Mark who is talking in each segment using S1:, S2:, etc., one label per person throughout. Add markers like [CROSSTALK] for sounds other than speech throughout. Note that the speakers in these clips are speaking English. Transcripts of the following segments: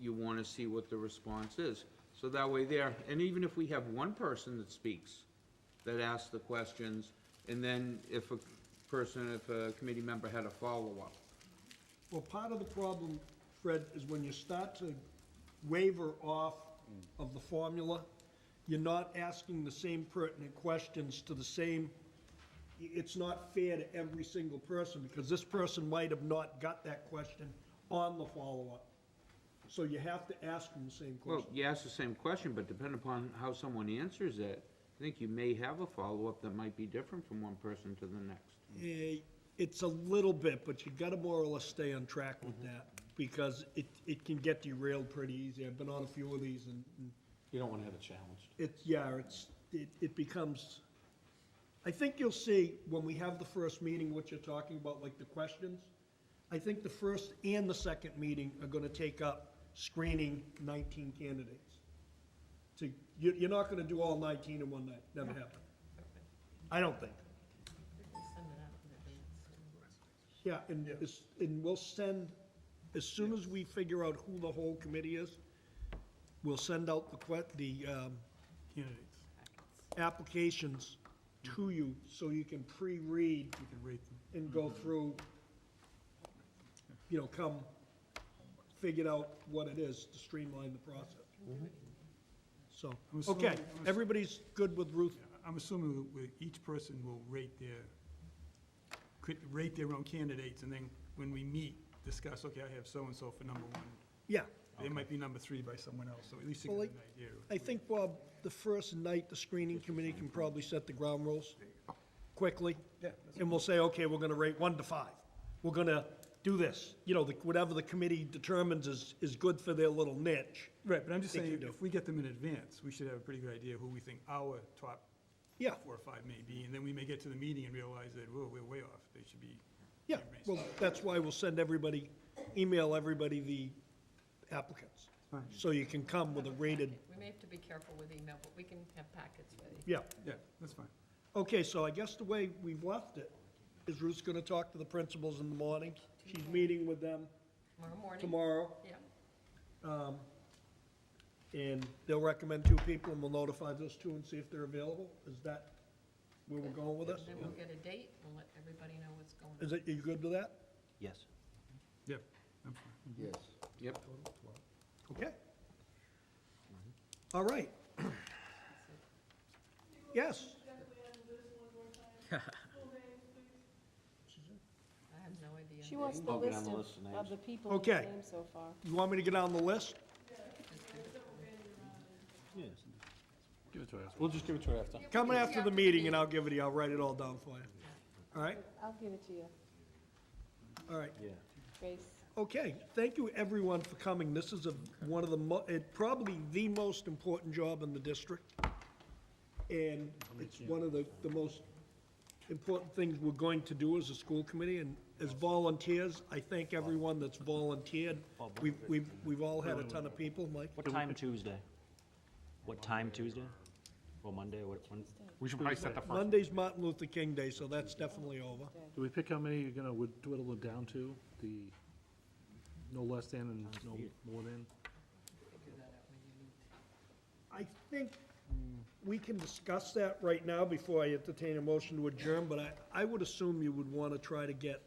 S1: you want to see what the response is. So that way there, and even if we have one person that speaks, that asks the questions, and then if a person, if a committee member had a follow-up.
S2: Well, part of the problem, Fred, is when you start to waver off of the formula, you're not asking the same pertinent questions to the same, i- it's not fair to every single person, because this person might have not got that question on the follow-up. So you have to ask them the same
S1: Well,
S2: question.
S1: you ask the same question, but depending upon how someone answers it, I think you may have a follow-up that might be different from one person to the next.
S2: Eh, It's a little bit, but you gotta more or less stay on track with
S3: Mm-hmm.
S2: that, because it, it can get derailed pretty easy. I've been on a few of these, and and
S3: You don't want to have it challenged.
S2: It's, yeah, it's, it, it becomes, I think you'll see when we have the first meeting, what you're talking about, like the questions. I think the first and the second meeting are gonna take up screening nineteen candidates. So you, you're not gonna do all nineteen in one night, never happen. I don't think. Yeah, and, as- and we'll send, as soon as we figure out who the whole committee is, we'll send out the que, the, um,
S4: candidates.
S2: applications to you so you can pre-read
S4: You can rate them.
S2: and go through, you know, come, figure out what it is to streamline the process. So,
S4: I'm assuming-
S2: okay,
S4: I'm ass-
S2: everybody's good with Ruth?
S4: I'm assuming that we- each person will rate their, could rate their own candidates, and then when we meet, discuss, okay, I have so-and-so for number one.
S2: Yeah,
S4: They might be number three by someone else, so at least you
S2: Well,
S4: get an idea. of-
S2: I think, Bob, the first night, the screening committee can probably set the ground rules quickly.
S4: Yeah, that's-
S2: And we'll say, okay, we're gonna rate one to five. We're gonna do this. You know, the- whatever the committee determines is, is good for their little niche.
S4: Right, but I'm just
S2: They can
S4: saying,
S2: do.
S4: if we get them in advance, we should have a pretty good idea who we think our top
S2: Yeah.
S4: four or five may be, and then we may get to the meeting and realize that, whoa, we're way off, they should be.
S2: Yeah,
S4: raised.
S2: well, that's why we'll send everybody, email everybody the applicants. So you can come with a rated,
S5: We may have to be careful with email, but we can have packets ready.
S2: yeah.
S4: Yeah, that's fine.
S2: Okay, so I guess the way we've left it is Ruth's gonna talk to the principals in the morning. She's meeting with them
S5: Tomorrow morning.
S2: tomorrow,
S5: Yeah.
S2: and they'll recommend two people, and we'll notify those two and see if they're available. Is that where we're going with this?
S5: Then we'll get a date and let everybody know what's going on.
S2: Is it, are you good with that?
S3: Yes.
S4: Yeah, I'm fine.
S1: Yes. Yep.
S2: Okay. All right. [CLEARS THROAT] Yes.
S5: I have no idea.
S6: She wants the
S3: I'll get
S6: list
S3: on the
S6: of,
S3: list of names.
S6: of the people who
S2: Okay.
S6: came so far.
S2: You want me to get on the list?
S3: Yes. Give it to her after. We'll just give it to her after.
S2: Come after the meeting and I'll give it to you, I'll write it all down for you. All right,
S6: I'll give it to you,
S2: all right.
S3: Yeah.
S6: Grace.
S2: Okay, thank you everyone for coming. This is a, one of the, mo- it, probably the most important job in the district. And it's one of the, the most important things we're going to do as a school committee. And as volunteers, I thank everyone that's volunteered. We've, we've, we've all had a ton of people, Mike.
S7: What time Tuesday? What time Tuesday? Or Monday, or what, when?
S8: We should probably set the first,
S2: Monday's Martin Luther King Day, so that's definitely over.
S9: Do we pick how many you're gonna would dwindle it down to? The no less than and no more than?
S2: I think we can discuss that right now before I entertain a motion to adjourn, but I, I would assume you would want to try to get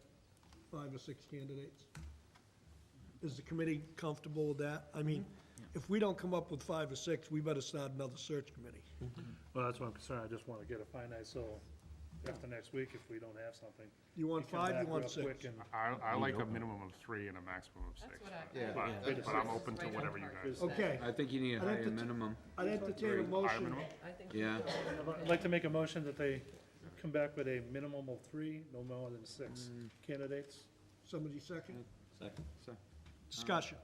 S2: five or six candidates. Is the committee comfortable with that? I mean, if we don't come up with five or six, we better start another search committee.
S9: Well, that's what I'm concerned, I just wanna get a finite, so after next week, if we don't have something.
S2: You want
S9: come
S2: five,
S9: back
S2: you want
S9: real
S2: six?
S9: quick and-
S8: I, I like a minimum of three and a maximum of
S5: That's
S8: six.
S5: what I.
S1: Yeah.
S8: But,
S5: that's
S8: but I'm open to
S5: right on
S8: whatever you
S5: target.
S8: guys.
S2: Okay,
S1: I think you need a
S2: I'd have
S1: higher
S2: to-
S1: minimum,
S2: I'd entertain a
S8: Higher
S2: motion.
S8: minimum?
S5: I think.
S1: yeah.
S9: I'd like to make a motion that they come back with a minimum of three, no more than six candidates.
S2: Somebody second?
S3: Second.
S1: So
S2: Discussion.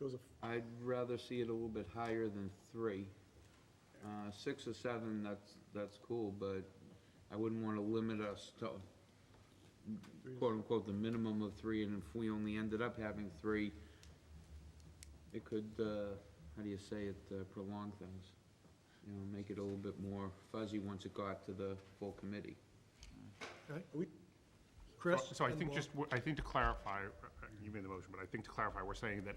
S9: Goes a
S1: I'd rather see it a little bit higher than three. Uh, six or seven, that's, that's cool, but I wouldn't wanna limit us to quote unquote, the minimum of three, and if we only ended up having three, it could, uh, how do you say it, uh, prolong things. You know, make it a little bit more fuzzy once it got to the full committee.
S2: Chris?
S8: So I
S2: and
S8: think
S2: Bob?
S9: Oh,
S8: uh, just, I think to clarify, uh, you made the motion, but I think to clarify, we're saying that